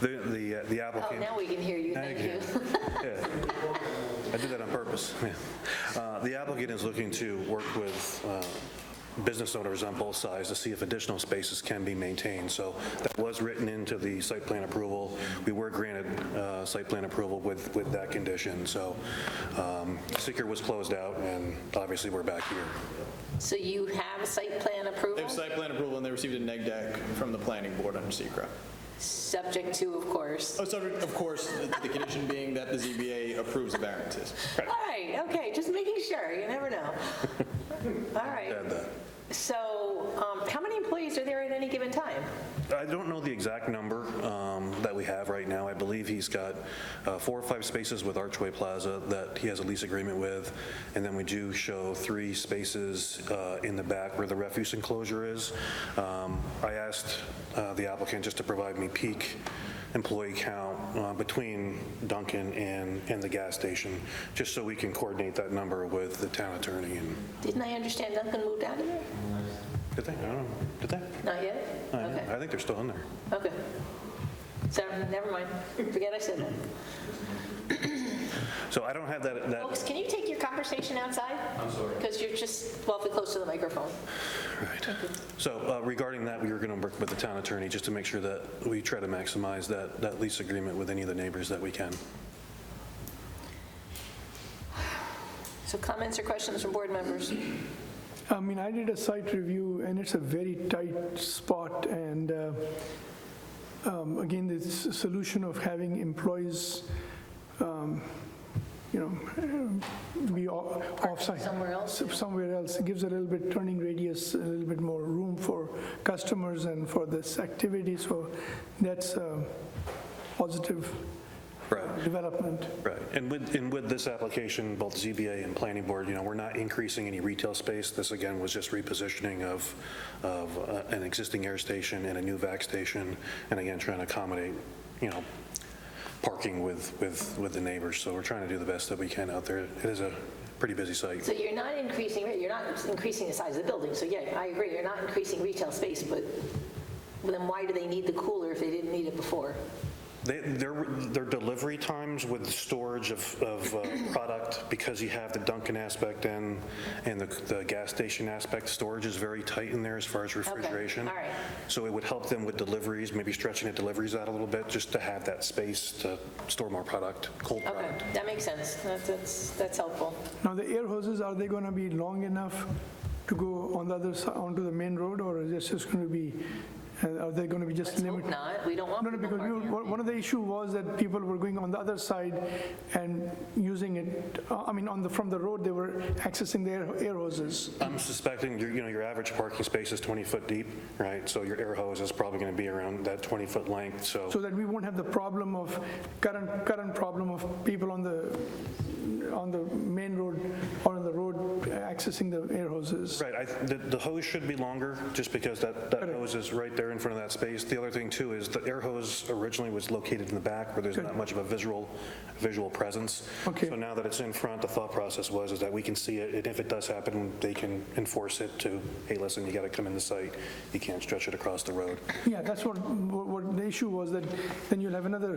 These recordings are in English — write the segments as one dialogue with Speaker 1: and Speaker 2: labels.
Speaker 1: the- the uh, the
Speaker 2: Oh,
Speaker 1: applicant.
Speaker 2: now we can hear you,
Speaker 1: Now you
Speaker 2: thank you.
Speaker 1: Yeah. I did that on purpose. Yeah. Uh, The applicant is looking to work with uh, business owners on both sides to see if additional spaces can be maintained. So that was written into the site plan approval. We were granted uh, site plan approval with, with that condition. So um, seeker was closed out, and obviously, we're back here.
Speaker 2: So you have site plan
Speaker 3: They
Speaker 2: approval,
Speaker 3: have site plan approval, and they received a neg deck from the planning board under SECR.
Speaker 2: subject to, of course.
Speaker 3: Oh, subject, of course, the condition being that the ZBA approves the variances.
Speaker 2: All right, okay, just making sure, you never know. All right,
Speaker 1: Add that.
Speaker 2: so um, how many employees are there at any given time?
Speaker 1: I don't know the exact number um, that we have right now. I believe he's got uh, four or five spaces with Archway Plaza that he has a lease agreement with, and then we do show three spaces uh, in the back where the refuse enclosure is. Um, I asked uh, the applicant just to provide me peak employee count uh, between Duncan and, and the gas station, just so we can coordinate that number with the town attorney and,
Speaker 2: Didn't I understand Duncan moved out of there?
Speaker 1: did they? I don't know, did they?
Speaker 2: Not yet?
Speaker 1: I don't know.
Speaker 2: Okay.
Speaker 1: I think they're still in there.
Speaker 2: Okay. So, never mind, forget I said that.
Speaker 1: So I don't have that, that
Speaker 2: Folks, can you take your conversation outside? I'm sorry. Because you're just awfully close to the microphone.
Speaker 1: Right. So uh, regarding that, we were going to work with the town attorney just to make sure that we try to maximize that, that lease agreement with any of the neighbors that we can.
Speaker 2: So comments or questions from board members?
Speaker 4: I mean, I did a site review, and it's a very tight spot, and uh, um, again, the s- solution of having employees, um, you know, um, be o- offsite.
Speaker 2: somewhere else,
Speaker 4: s- Somewhere else, it gives a little bit turning radius, a little bit more room for customers and for this activity, so that's a positive
Speaker 1: Right.
Speaker 4: development.
Speaker 1: Right. And with, and with this application, both ZBA and planning board, you know, we're not increasing any retail space. This, again, was just repositioning of, of uh, an existing air station and a new vac station, and again, trying to accommodate, you know, parking with, with, with the neighbors. So we're trying to do the best that we can out there. It is a pretty busy site.
Speaker 2: So you're not increasing, you're not increasing the size of the building, so yeah, I agree, you're not increasing retail space, but then why do they need the cooler if they didn't need it before?
Speaker 1: They- Their their delivery times with the storage of of uh, product, because you have the Dunkin' aspect and, and the the gas station aspect, storage is very tight in there as far as refrigeration.
Speaker 2: all right.
Speaker 1: So it would help them with deliveries, maybe stretching the deliveries out a little bit, just to have that space to store more product, cold
Speaker 2: Okay,
Speaker 1: product.
Speaker 2: that makes sense, That's- that's, that's helpful.
Speaker 4: Now, the air hoses, are they going to be long enough to go on the other side, onto the main road, or is this just going to be, uh, are they going to be just
Speaker 2: Let's hope
Speaker 4: limited?
Speaker 2: not, we don't want
Speaker 4: No, no,
Speaker 2: people
Speaker 4: because we
Speaker 2: parking
Speaker 4: were- one of the issue was that people were going on the other side and using it, uh, I mean, on the, from the road, they were accessing the air- air hoses.
Speaker 1: I'm suspecting, your you know, your average parking space is 20 foot deep, right? So your air hose is probably going to be around that 20 foot length,
Speaker 4: so that we won't have the problem of, current, current problem of people on the, on the main road or on the road accessing the air hoses.
Speaker 1: Right, I, the, the hose should be longer, just because that, that hose is right there in front of that space. The other thing too is the air hose originally was located in the back where there's not much of a visual, visual presence.
Speaker 4: Okay.
Speaker 1: So now that it's in front, the thought process was is that we can see it, and if it does happen, they can enforce it to, hey, listen, you got to come in the site, you can't stretch it across the road.
Speaker 4: Yeah, that's what, what what the issue was, that then you'll have another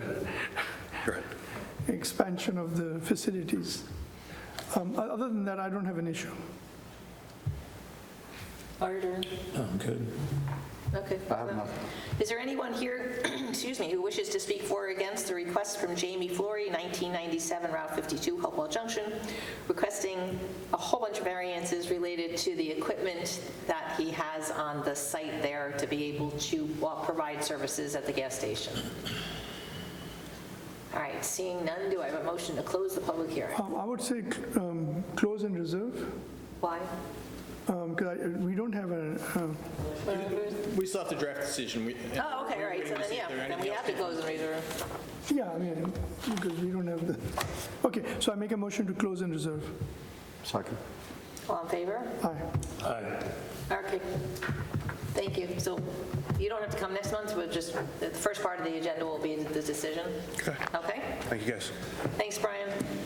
Speaker 1: Right.
Speaker 4: expansion of the facilities. Um, o- Other than that, I don't have an issue.
Speaker 2: Harder. Okay. Is there anyone here, excuse me, who wishes to speak for or against the request from Jamie Flory, 1997 Route 52, Hopewell Junction, requesting a whole bunch of variances related to the equipment that he has on the site there to be able to well, provide services at the gas station? All right, seeing none, do I have a motion to close the public hearing?
Speaker 4: Um, I would say um, close and reserve,
Speaker 2: Why?
Speaker 4: because we don't have a, uh,
Speaker 3: We still have to draft a decision. We- and
Speaker 2: Oh, okay, all
Speaker 3: we're
Speaker 2: right, so
Speaker 3: waiting to
Speaker 2: then,
Speaker 3: see if
Speaker 2: yeah,
Speaker 3: there are
Speaker 2: then we
Speaker 3: anything else
Speaker 2: have to close and reserve.
Speaker 4: yeah, I mean, because we don't have the, okay, so I make a motion to close and reserve.
Speaker 5: Second.
Speaker 2: All in favor?
Speaker 4: Aye.
Speaker 2: Okay, thank you. So you don't have to come next month, but just, the first part of the agenda will be the decision. Okay.
Speaker 1: Thank you, guys.
Speaker 2: Thanks, Brian.